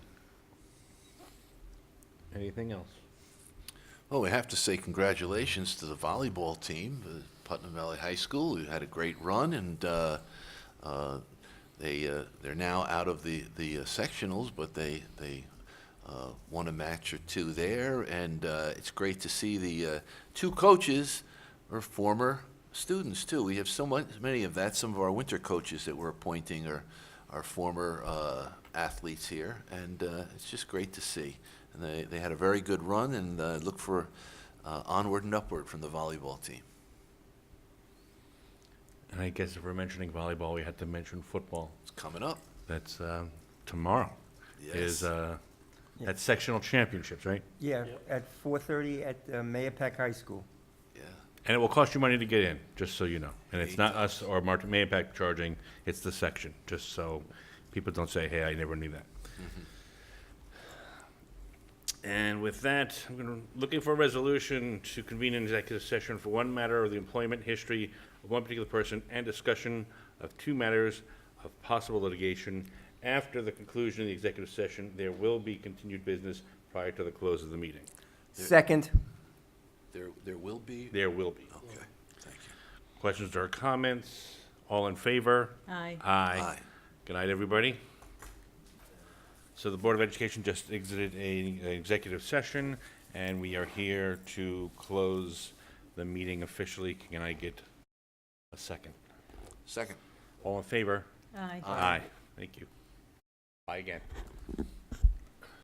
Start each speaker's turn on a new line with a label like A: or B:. A: Anything else?
B: Well, we have to say congratulations to the volleyball team, uh, Putnam Valley High School, who had a great run, and uh, uh, they, uh, they're now out of the, the uh, sectionals, but they, they uh, won a match or two there, and uh, it's great to see the uh, two coaches are former students, too. We have so much, many of that, some of our winter coaches that we're appointing are, are former uh, athletes here, and uh, it's just great to see. And they, they had a very good run, and uh, look for uh, onward and upward from the volleyball team.
A: And I guess if we're mentioning volleyball, we had to mention football.
B: It's coming up.
A: That's uh, tomorrow. Is
B: Yes.
A: uh,
C: Yeah.
A: that's sectional championships, right?
C: Yeah, at 4:30 at uh, Mayapack High School.
B: Yeah.
A: And it will cost you money to get in, just so you know. And it's not us or Martin Mayapack charging, it's the section, just so people don't say, hey, I never knew that. Mm-hmm. And with that, I'm gonna, looking for a resolution to convene an executive session for one matter of the employment history of one particular person and discussion of two matters of possible litigation. After the conclusion of the executive session, there will be continued business prior to the close of the meeting.
C: Second,
B: There, there will be.
A: There will be.
B: Okay. Thank you.
A: Questions or comments? All in favor?
D: Aye.
A: Aye. Good night, everybody. So the Board of Education just exited a a executive session, and we are here to close the meeting officially. Can I get a second?
B: Second.
A: All in favor?
D: Aye.
A: Aye. Thank you. Aye again.